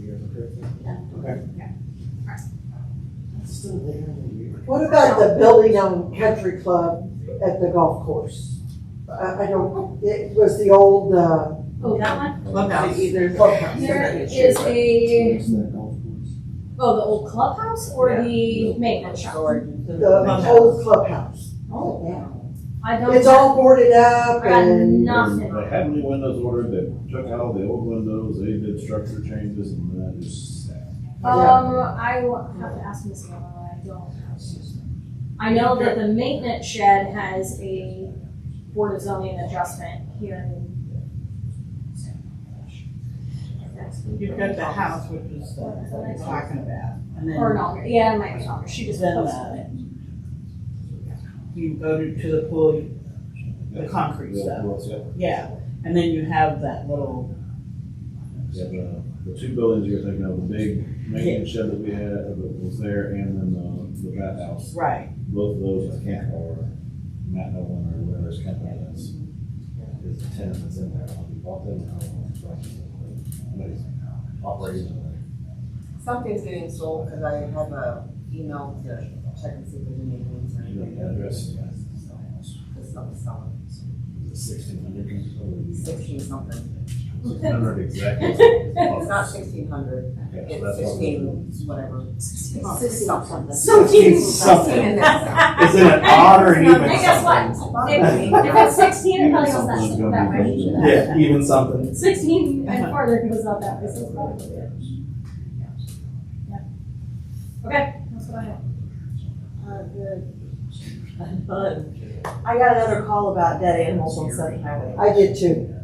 Yeah. Okay. It's still later in the year. What about the building on Country Club at the golf course? I, I don't, it was the old, uh, Oh, that one? Clubhouse. either clubhouse. There is a, It's that golf course. oh, the old clubhouse or the maintenance shop? the old clubhouse. Oh, yeah. I don't. It's all boarded up I got and, nothing. They had new windows ordered, they took out all the old windows, they did structure changes and that is sad. Um, I will have to ask Miss Miller, I don't. I know that the maintenance shed has a board of zoning adjustment here in. You've got the house, which is the, what you're talking about, and Or then, not, yeah, it might be longer, she just Then, uh, posted it. you go to, to the pool, the concrete Yeah, stuff, well, yeah. yeah, and then you have that little, Yeah, the, the two buildings you're thinking of, the big maintenance shed that we had, uh, that was there, and then the, the bathhouse. right, Both of those, I can't, or Matt Nolan or whatever his company is, is the tenant that's in there, I'll be bought them out. But he's Operating. in Something's getting sold, because I have a email to check and see if there's any rooms or there. You anything. know, the address, It's not selling, sixteen hundred. sixteen something. Six hundred exactly. It's It's not sixteen hundred, it's sixteen, whatever. something. Something. Something. in that It's in an odd or an even Hey, guess something. what? If, if it's sixteen, it probably goes that, that way. Yeah, even something. Sixteen and farther goes out that way, so it's probably. Okay, that's what I have. Uh, good. I got another call about dead animals on Sunny Highway, I did too.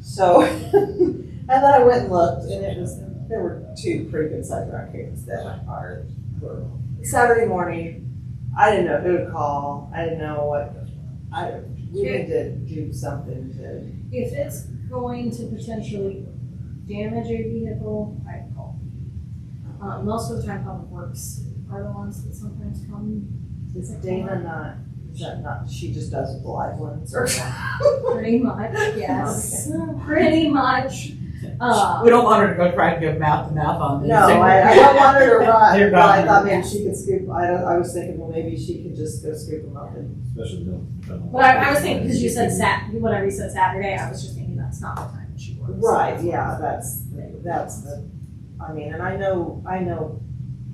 so I thought I went and looked, and it was, there were two pretty good sized raccoons that are, were. Saturday morning, I didn't know who to call, I didn't know what, I, we need to do something to. If it's going to potentially damage a vehicle, I call. Uh, most of the time public works are the ones that sometimes come, Is Dana not, is that not, she just does with the live ones, or? pretty much, yes, pretty much. Uh, we don't want her to go try to give mouth to mouth on this. No, I, I don't want her to They're run, but I gone. thought maybe she could scoop, I don't, I was thinking, well, maybe she could just go scoop them up and. Especially them. them- but I, I was thinking, because you said Sat, whatever you said Saturday, I was just thinking that's not the time that she works. Right, yeah, that's, that's the, I mean, and I know, I know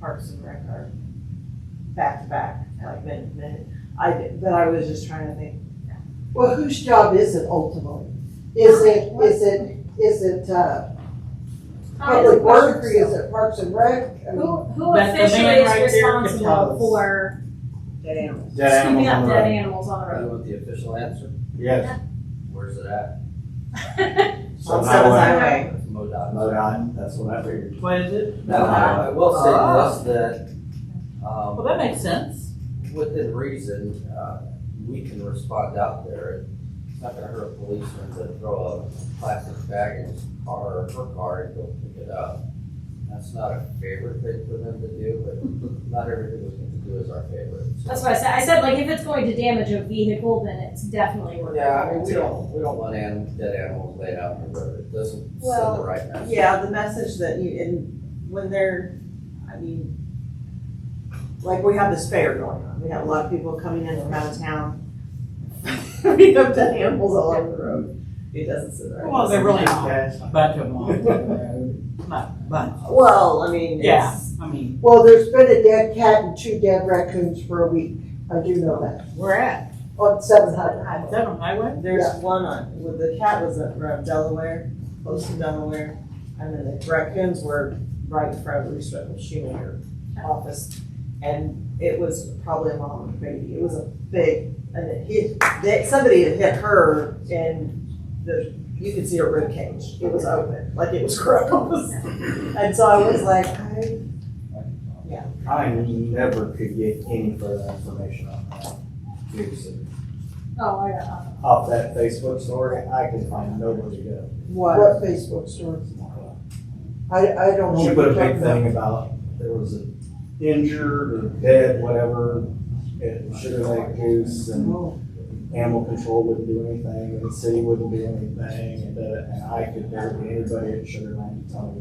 Parks and Rec are back to back, like, minute, to minute. I, did- but I was just trying to think, Well, whose job is it ultimately? Is it, is it, is it, uh, Probably Public Works or works. is it Parks and Rec? I mean, Who, who That's the officially man is right there that responsible tells. for dead animals. Dead scooping animals on up the dead road. animals on the I road? want the official answer. Yes. Where's it at? On So Seventh highway, Highway, That's MoDOT. another island, that's what I figured. What is it? Now, I I will say this, that, Well, Oh. um, that makes sense, within reason, uh, we can respond out there. It's not gonna hurt a policeman to throw a plastic bag in his car or her car and go pick it up. That's not a favorite thing for them to do, but not everything we can do is our favorite. so. That's what I said. I said like if it's going to damage a vehicle, then it's definitely worth it. Yeah, I mean, we don't, we don't want anim, dead animals laid out on the road. It doesn't send the Well, right message. yeah, the message that you, and when they're, I mean, like, we have this fair going on, we have a lot of people coming in from out of town. We have dead animals all over the road, it doesn't sit right. well, they're really not Yes. a bunch of them on the road, not a bunch, Well, I mean, yeah, it's, I mean, Well, there's been a dead cat and two dead raccoons for a week. I do know that. Oh, we're at, On Seventh Highway. is that on highway? there's one on, with the cat was around Delaware, close to Delaware, and then the raccoons were right in front of Reese Reynolds Shoemaker office. And it was probably a mom and baby, it was a big, and it hit, that, somebody had hit her and the, you could see her rib cage, it was open, like it was gross. And so I was like, I, I never could get any further information on that. Seriously. Oh, I got off. Off that Facebook story, I can find nowhere to go. what? What Facebook story? I, I don't know. She what put you're a talking big about. thing about there was an injured or dead, whatever, at Sugar Lake Goose and Oh. animal control wouldn't do anything and the city wouldn't do anything and, uh, and I could barely get anybody at Sugar Lake to tell me